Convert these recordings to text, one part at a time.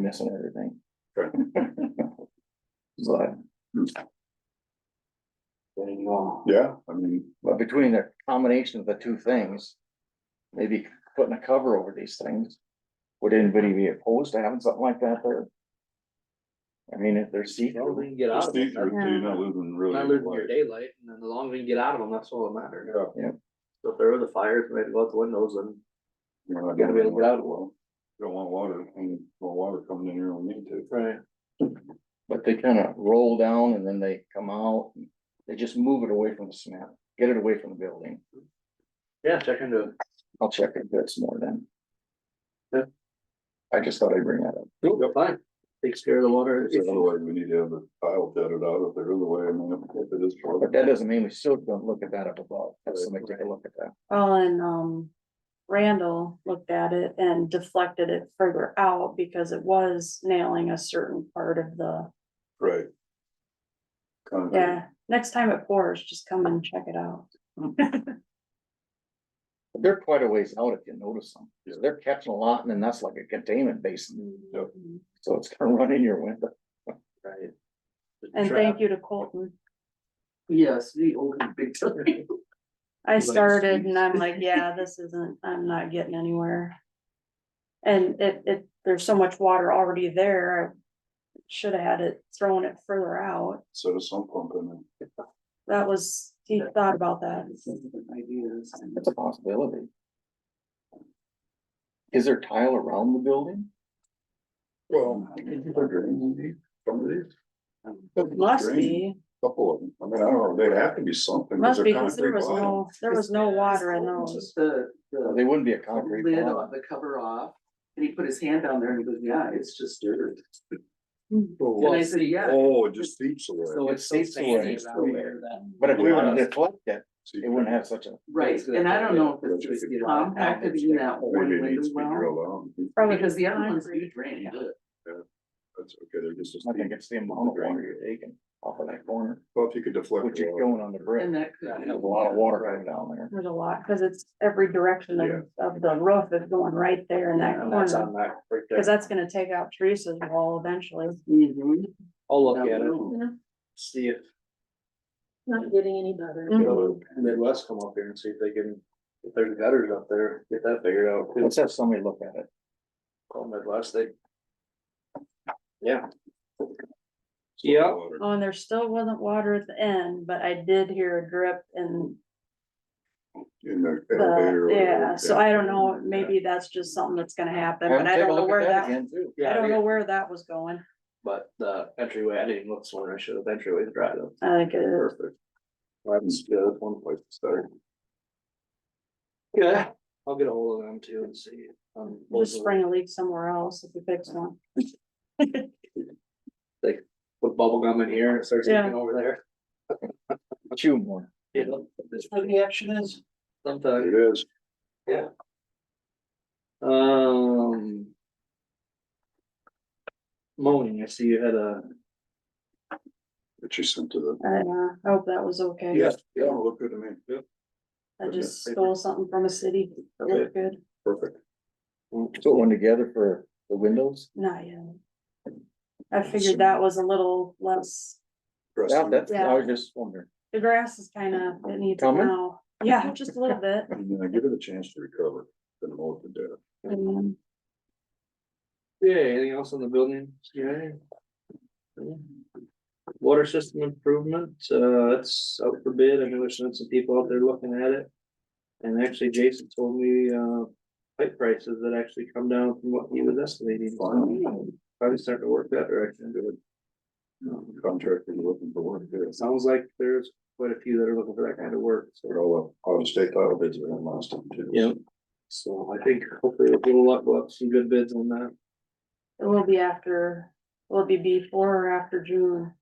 missing everything. Sure. But, Yeah, I mean, but between the combination of the two things, maybe putting a cover over these things. Would anybody be opposed to having something like that there? I mean, if they're Well, see-through, we can get out it's of them. deeper, That's- so you're not losing You're really. Not losing your light. daylight, and then the longer we can get out of them, that's all that matters. Yeah. Yeah. So if there was a fire, if we had to go out the windows, then You're not we gotta be able to doing get it. out of them. You Don't want water, I mean, well, water coming in here when we need to. Right. but they kind of roll down and then they come out. They just move it away from the cement, get it away from the building. Yeah, check into it. I'll check if it's more then. Yeah. I just thought I'd bring that up. Nope, fine. Takes care of the water. So Otherwise, we need to have the tile jutted out if there is a way, I mean, if- if it is. short. But that doesn't mean we still don't look at that up above. Have somebody take a look at that. Well, and, um, Randall looked at it and deflected it further out because it was nailing a certain part of the, Right. Concrete. yeah. Next time it pours, just come and check it out. But They're quite a ways out if you notice them. So They're catching a lot and then that's like a containment basin. Yep. So it's gonna run in your window. Right. And thank you to Colton. Yes, the old and big time. I Like started and sweets. I'm like, yeah, this isn't, I'm not getting anywhere. And it, it, there's so much water already there. I Should have had it, thrown it further out. Set a sump pump in it. That was, he thought about that. Ideas. That's a possibility. Is there tile around the building? Well, they're drains, some of these. Must be, Couple of them, I mean, I don't know, they'd have to be something. 'cause must be, they're cause there concrete was bottom. no, there was no water in those. The, Well, the They wouldn't be a concrete. lid block. on the cover off, and he put his hand down there and he goes, yeah, it's just dirt. Mm. And I Well, said, yeah. Oh, it just seeps away. So It it's so seeps away. sandy down there that. But if we were to Yeah. deflect it, it wouldn't have such a, Right, and I don't know if it's Yeah. just compacted E in that one Maybe it window needs to be well, drilled out. Probably because the other ones do concrete. drain good. That's okay, they're just. a I think steep- it's the amount of water you're taking off of that corner, Well, if you could deflect. which the is water. going on the brick. And that could. There's a lot of water going down there. There's a lot, cause it's every direction Yeah. of, of the roof is going right there in that And that's corner. on that right there. Cause that's gonna take out Teresa's wall eventually. Mhm. I'll look at it, That see if Not getting any better. Mhm. the Midwest come up here and see if they can, if there's gutters up there, get that figured out. too. Let's have somebody look at it. Call Midwest, they. Yeah. So Yeah. water. Oh, and there still wasn't water at the end, but I did hear a drip and In the elevator. the, yeah, so I don't know, maybe that's just something that's gonna happen, but Have I them take a don't know look at where that, again, too. I Yeah, don't yeah, know where that was going. but the entryway, I didn't even look somewhere, I should have entryway dried up. I think it, Perfect. Well, That's, yeah, that's one place to start. Yeah, I'll get a hold of them too and see. um, just spring a leak somewhere else if we fix one. Put bubble gum in here and it starts Yeah. leaking over there. Chew more. You know, that's where the action is. Sometimes. It is. Um. Moaning, I see you had a, But you sent to the. I, uh, I hope that was okay. Yeah, yeah, look good to me. Yeah, I just stole something from a city that looked good. perfect. Put one together for the windows. Not yet. I figured that was a little less, Dress Yeah, them. that's, I Yeah. was just wondering. the grass is kind of, it needs Coming? now. Yeah, just a little bit. And then give it a chance to recover, then mold it down. And yeah, anything else on the building? Yeah. Water system improvement, uh, that's out for bid. I know there's been some people out there looking at it. And actually Jason told me, uh, pipe prices that actually come down from what he was estimating. So Probably starting to work that direction. Um, Contractor looking for work, yeah. It sounds like there's quite a few that are looking for that kind of work, so. They're all up, all the state title bids were in last time too. Yep. So I think hopefully we'll get a lot, we'll have some good bids on that. It will be after, will it be before or after June?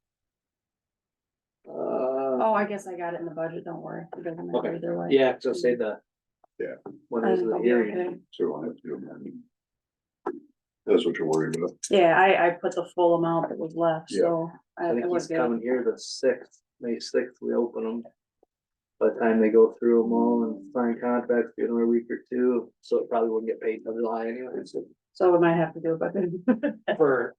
Uh, Oh, I guess I got it in the budget, don't worry. It doesn't matter Okay. either way. Uh, yeah, so say the. Yeah. What I is think the I'll be hearing? okay. So I have to do that. That's what you're worried about. Yeah, I, I put the full amount that was left, Yeah. so. I I think it was he's good. coming here the sixth, May sixth, we open them. By the time they go through them all and sign contracts, be another week or two, so it probably wouldn't get paid till July anyway. so So we might have to do it, but for